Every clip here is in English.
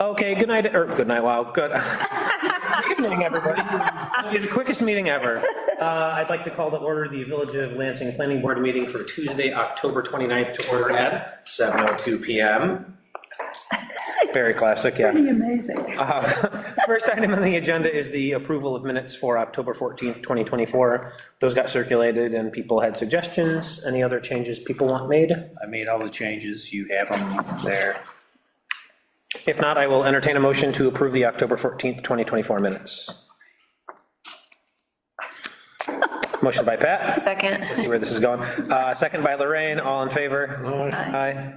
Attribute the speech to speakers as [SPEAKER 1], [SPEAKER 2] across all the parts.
[SPEAKER 1] Okay, good night, or good night, wow, good. Good evening, everybody. It'll be the quickest meeting ever. Uh, I'd like to call to order the Village of Lansing Planning Board meeting for Tuesday, October 29th, to order at 7:02 PM. Very classic, yeah.
[SPEAKER 2] Pretty amazing.
[SPEAKER 1] First item on the agenda is the approval of minutes for October 14th, 2024. Those got circulated and people had suggestions. Any other changes people want made?
[SPEAKER 3] I made all the changes, you have them there.
[SPEAKER 1] If not, I will entertain a motion to approve the October 14th, 2024 minutes. Motion by Pat,
[SPEAKER 4] Second.
[SPEAKER 1] see where this is going. Uh, Second by Lorraine, all in favor? Aye.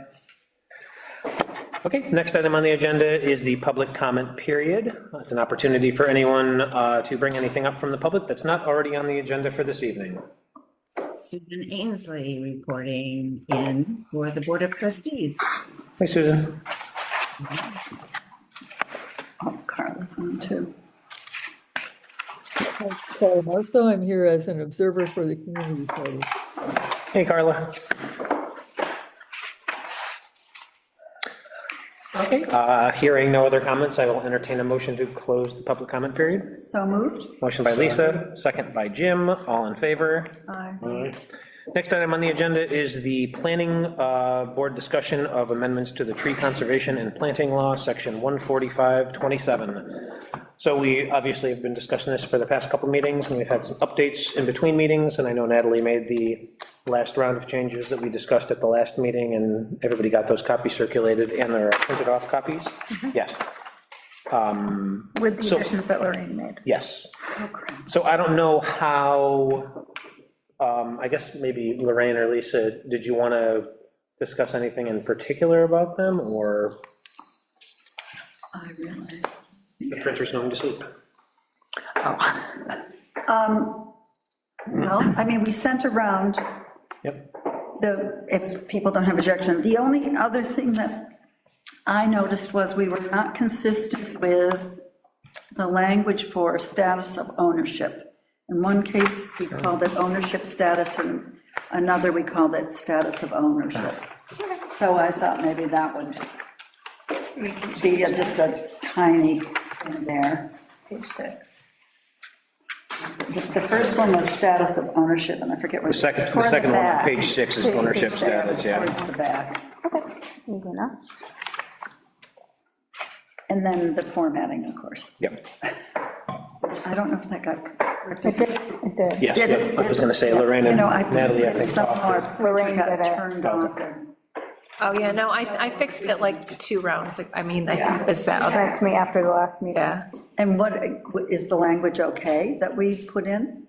[SPEAKER 1] Okay, next item on the agenda is the public comment period. It's an opportunity for anyone uh, to bring anything up from the public that's not already on the agenda for this evening.
[SPEAKER 5] Susan Ainsley reporting in for the Board of Trustees.
[SPEAKER 1] Hey, Susan.
[SPEAKER 2] Oh, Carla's on too.
[SPEAKER 6] I'm Carla Marso, I'm here as an observer for the community party.
[SPEAKER 1] Hey, Carla. Okay, uh, hearing no other comments, I will entertain a motion to close the public comment period.
[SPEAKER 2] So moved.
[SPEAKER 1] Motion by Lisa, second by Jim, all in favor.
[SPEAKER 2] Aye.
[SPEAKER 1] Next item on the agenda is the planning uh, board discussion of amendments to the tree conservation and planting law, section 14527. So we obviously have been discussing this for the past couple meetings, and we've had some updates in between meetings, and I know Natalie made the last round of changes that we discussed at the last meeting, and everybody got those copies circulated, and they're printed off copies? Yes. Um,
[SPEAKER 2] Mm-hmm. With the
[SPEAKER 1] So-
[SPEAKER 2] additions that Lorraine made.
[SPEAKER 1] Yes.
[SPEAKER 2] Oh, crap.
[SPEAKER 1] So I don't know how, um, I guess maybe Lorraine or Lisa, did you want to discuss anything in particular about them, or
[SPEAKER 2] I realize.
[SPEAKER 1] the printer's going to sleep?
[SPEAKER 2] Um, Well, I mean, we sent around
[SPEAKER 1] Yep.
[SPEAKER 2] the, if people don't have objection. The only other thing that I noticed was we were not consistent with the language for status of ownership. In one case, we called it ownership status, and another, we called it status of ownership. So I thought maybe that would be just a tiny thing there. Page six. The first one was status of ownership, and I forget what.
[SPEAKER 3] The second, the
[SPEAKER 2] Toward
[SPEAKER 3] second one, on
[SPEAKER 2] back.
[SPEAKER 3] page six is ownership status, yeah.
[SPEAKER 2] Towards the back.
[SPEAKER 4] Easy enough.
[SPEAKER 2] And then the formatting, of course.
[SPEAKER 1] Yep,
[SPEAKER 2] I don't know if that got
[SPEAKER 4] It
[SPEAKER 2] corrected.
[SPEAKER 4] did, it did.
[SPEAKER 1] yes, yep. I was going to say Lorraine and
[SPEAKER 2] You know, I-
[SPEAKER 1] Natalie, I think.
[SPEAKER 2] somehow our printer
[SPEAKER 4] Lorraine
[SPEAKER 2] got
[SPEAKER 4] did it.
[SPEAKER 2] Turned off. and-
[SPEAKER 7] Oh, yeah, no, I, I fixed it like two rounds, like, I mean, I think it's that other,
[SPEAKER 4] Sent to me after the last meeting.
[SPEAKER 7] yeah,
[SPEAKER 2] And what, is the language okay that we put in?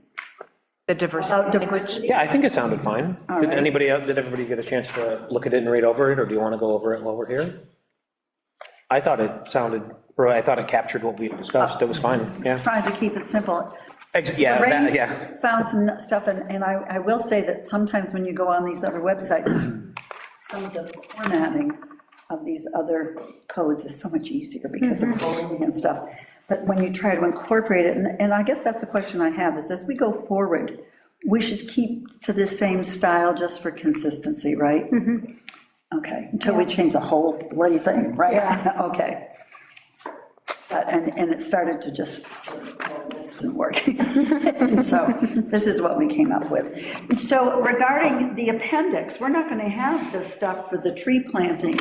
[SPEAKER 7] the diversity.
[SPEAKER 2] About diversity?
[SPEAKER 1] Yeah, I think it sounded fine.
[SPEAKER 2] All
[SPEAKER 1] Did
[SPEAKER 2] right.
[SPEAKER 1] anybody, else? did everybody get a chance to look at it and read over it, or do you want to go over it while we're here? I thought it sounded, or I thought it captured what we discussed, it was fine, yeah.
[SPEAKER 2] Trying to keep it simple.
[SPEAKER 1] Ex- Yeah, that-
[SPEAKER 2] Lorraine
[SPEAKER 1] yeah.
[SPEAKER 2] Found some stuff, and, and I, I will say that sometimes when you go on these other websites, some of the formatting of these other codes is so much easier because of bolding and stuff. But when you try to incorporate it, and, and I guess that's the question I have, is as we go forward, we should keep to the same style just for consistency, right? Okay, until we change the whole bloody thing, right? Okay. But, and, and it started to just, sort of, well, this isn't working. So this is what we came up with. So regarding the appendix, we're not going to have the stuff for the tree planting,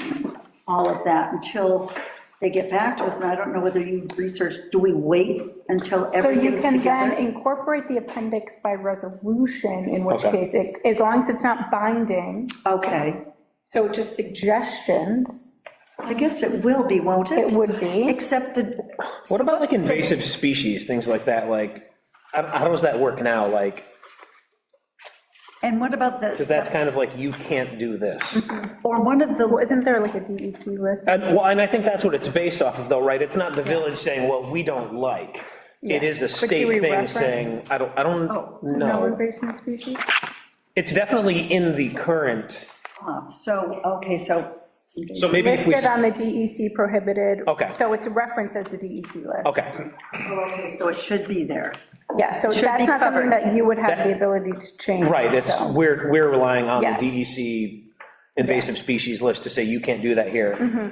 [SPEAKER 2] all of that, until they get back to us. And I don't know whether you researched, do we wait until
[SPEAKER 4] So you
[SPEAKER 2] everything's
[SPEAKER 4] can then
[SPEAKER 2] together?
[SPEAKER 4] incorporate the appendix by resolution, in which
[SPEAKER 1] Okay.
[SPEAKER 4] case, it- as long as it's not binding,
[SPEAKER 2] Okay,
[SPEAKER 4] so just suggestions,
[SPEAKER 2] I guess it will be, won't it?
[SPEAKER 4] it would be.
[SPEAKER 2] Except the,
[SPEAKER 1] What about like invasive species, things like that, like, how how does that work now, like,
[SPEAKER 2] and what about
[SPEAKER 1] because
[SPEAKER 2] the,
[SPEAKER 1] that's kind of like, you can't do this.
[SPEAKER 2] or one of the
[SPEAKER 4] Well, Isn't there like a DEC list?
[SPEAKER 1] And, well, and I think that's what it's based off of though, right, it's not the village saying, well, we don't like, it is a
[SPEAKER 4] But do we
[SPEAKER 1] state thing
[SPEAKER 4] reference- Oh,
[SPEAKER 1] saying, I don't, I don't
[SPEAKER 4] No
[SPEAKER 1] know.
[SPEAKER 4] invasive species?
[SPEAKER 1] It's definitely in the current,
[SPEAKER 2] Uh, So, okay, so,
[SPEAKER 1] so maybe if we,
[SPEAKER 4] Listed on the DEC prohibited.
[SPEAKER 1] Okay.
[SPEAKER 4] So it's referenced as the DEC list.
[SPEAKER 1] okay,
[SPEAKER 2] okay, so it should be there.
[SPEAKER 4] Yeah, so
[SPEAKER 2] Should be
[SPEAKER 4] that's not something
[SPEAKER 2] covered.
[SPEAKER 4] that you would have
[SPEAKER 1] That-
[SPEAKER 4] the ability to change.
[SPEAKER 1] right,
[SPEAKER 4] so.
[SPEAKER 1] E it's, we're, we're relying on
[SPEAKER 4] Yes.
[SPEAKER 1] the DEC invasive species list to say you can't do that here.